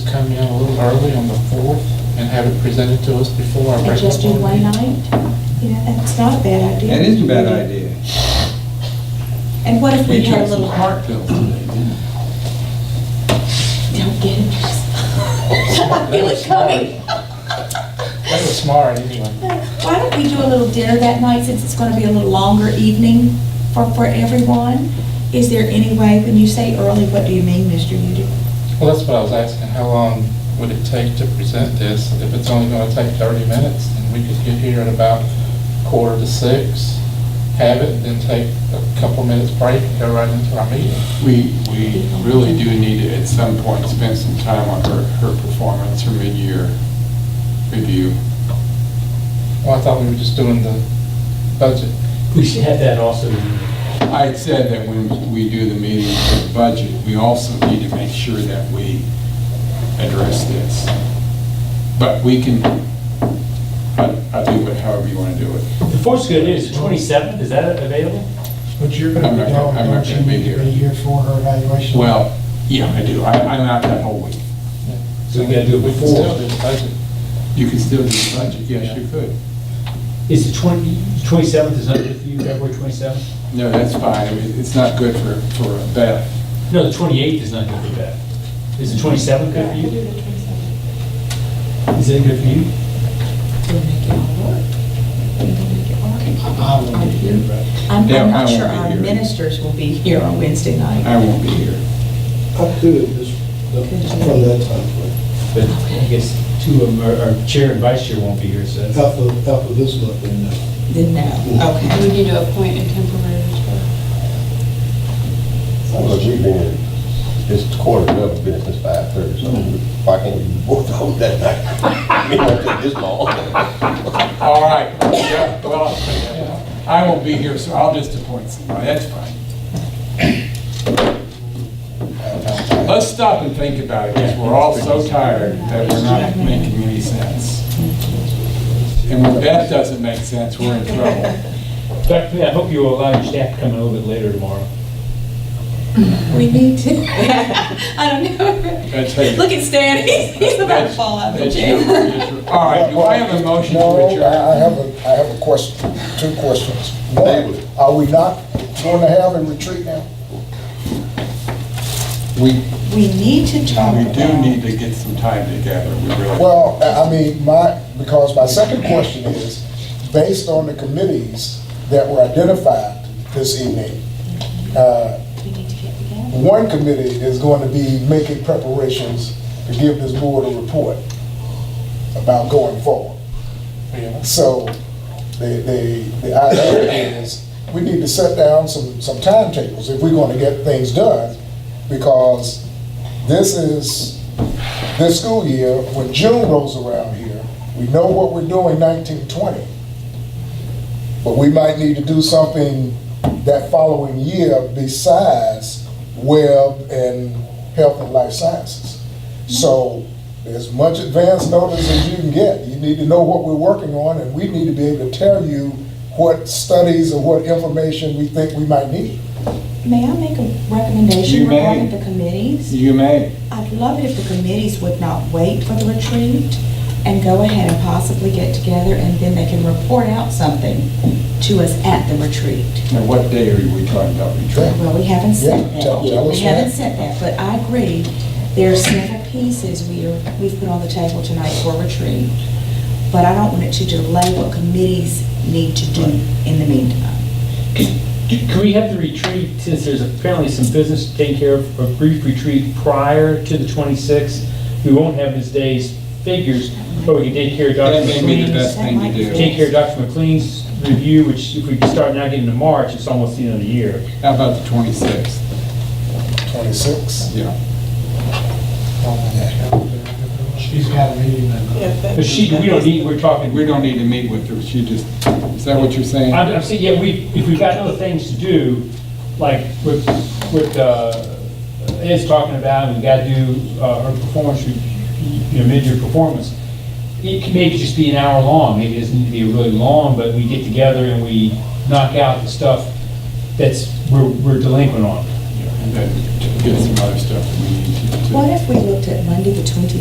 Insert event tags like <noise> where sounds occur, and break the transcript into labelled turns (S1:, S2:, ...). S1: come in a little early on the 4th and have it presented to us before our
S2: And
S1: regular
S2: just do
S1: board
S2: one
S1: meeting?
S2: night? Yeah, that's not a bad idea.
S3: That is a bad idea.
S2: And what if we
S3: We
S2: had a
S3: took some
S2: little,
S3: heart pills today, didn't we?
S2: don't get <laughs> it. I feel it coming.
S1: That was smart, anyway.
S2: Why don't we do a little dinner that night, since it's gonna be a little longer evening for, for everyone? Is there any way, when you say early, what do you mean, Mr. Udy?
S1: Well, that's what I was asking, how long would it take to present this? If it's only going to take 30 minutes, then we could get here at about quarter to 6, have it, then take a couple minutes break and go right into our meeting.
S4: We, we really do need to, at some point, spend some time on her, her performance, her mid-year review.
S1: Well, I thought we were just doing the budget.
S5: We should have that also.
S4: I had said that when we do the meeting for the budget, we also need to make sure that we address this. But we can, I, I do it however you want to do it.
S5: The fourth's good news, the 27th, is that available?
S6: But you're
S4: I'm
S6: going to
S4: not
S6: be
S4: gonna-
S6: gone,
S4: I'm not
S6: don't you
S4: gonna be
S6: need to
S4: here.
S6: be here for her evaluation?
S4: Well, yeah, I do. I, I'm out that whole week.
S5: So we gotta do it
S1: We can
S5: before.
S1: still do the budget.
S4: You can still do the budget, yes, you could.
S5: Is the 20, 27th is not good for you, February 27th?
S4: No, that's fine. I mean, it's not good for, for Beth.
S5: No, the 28th is not good for Beth. Is the 27th good for you? Is it good for you?
S6: I will be here, but
S2: I'm,
S4: Yeah,
S2: I'm
S4: I
S2: not
S4: won't
S2: sure
S4: be
S2: our
S4: here.
S2: ministers will be here on Wednesday night.
S4: I won't be here.
S6: up to this, the- from that time, frame.
S5: But I guess two of them, are- our chair and vice chair won't be here, so that's-
S6: half of, half of this month, and uh, now.
S2: Then no, okay.
S7: We need to appoint a temporary reserve.
S8: Well, we've been, it's quarter of the business by thirty, so why can't we both hold that <laughs> night? We don't take this long.
S4: All right, yeah, well, yeah. I won't be here, so I'll just appoint somebody, that's fine. Let's stop and think about it, because we're all so tired that we're not making any sense. And when that doesn't make sense, we're in trouble.
S5: Dr. Lee, I hope you will allow your staff to come in a little bit later tomorrow.
S2: We need to. <laughs> I don't know.
S4: That's how you-
S2: Look at Stan, <laughs> he's, he's about to fall out of the
S4: That's-
S2: chair.
S4: that's your- All right, do I have a motion to
S9: No,
S4: adjourn?
S9: I I have a, I have a question, two questions. One, are we not going to have a retreat now?
S4: We,
S2: We need to talk
S4: we
S2: about.
S4: do need to get some time together, we really.
S9: Well, I I mean, my, because my second question is, based on the committees that were identified this evening, uh,
S2: We need to get together.
S9: one committee is going to be making preparations to give this board a report about going forward.
S1: Yeah.
S9: So the, the, the idea is, we need to set down some, some timetables if we're gonna get things done, because this is, this school year, when June rolls around here, we know what we're doing nineteen twenty. But we might need to do something that following year besides web and health and life sciences. So as much advance notice as you can get, you need to know what we're working on, and we need to be able to tell you what studies or what information we think we might need.
S2: May I make a
S4: You
S2: recommendation
S4: may.
S2: regarding the committees?
S4: You may.
S2: I'd love it if the committees would not wait for the retreat and go ahead and possibly get together and then they can report out something to us at the retreat.
S4: Now, what day are we talking about retreat?
S2: Well, we haven't
S9: Yeah,
S2: said that.
S9: tell- tell us
S2: We haven't
S9: that.
S2: said that, but I agree, there are several pieces we are, we've put on the table tonight for retreat. But I don't want it to delay what committees need to do in the meantime.
S5: Can we have the retreat, since there's apparently some business to take care of, a brief retreat prior to the 26th? We won't have Ms. Day's figures, but we can take care of
S4: That
S5: Dr.
S4: may be the
S5: McLean's.
S4: best thing to do.
S5: Take care of Dr. McLean's review, which if we start now getting to March, it's almost the end of the year.
S4: How about the 26th?
S9: Twenty-six?
S4: Yeah.
S6: She's got a meeting that night.
S5: But she, we don't need, we're talking,
S4: We don't need to meet with her, she just, is that what you're saying?
S5: I'm, I'm saying, yeah, we, if we've got other things to do, like with, with, uh, Ed's talking about, we gotta do, uh, her performance, re- you know, mid-year performance. It can maybe just be an hour long, maybe it doesn't need to be really long, but we get together and we knock out the stuff that's, we're, we're delinquent on.
S4: And then Get some other stuff that we need to.
S2: What if we looked at Monday, the 23rd?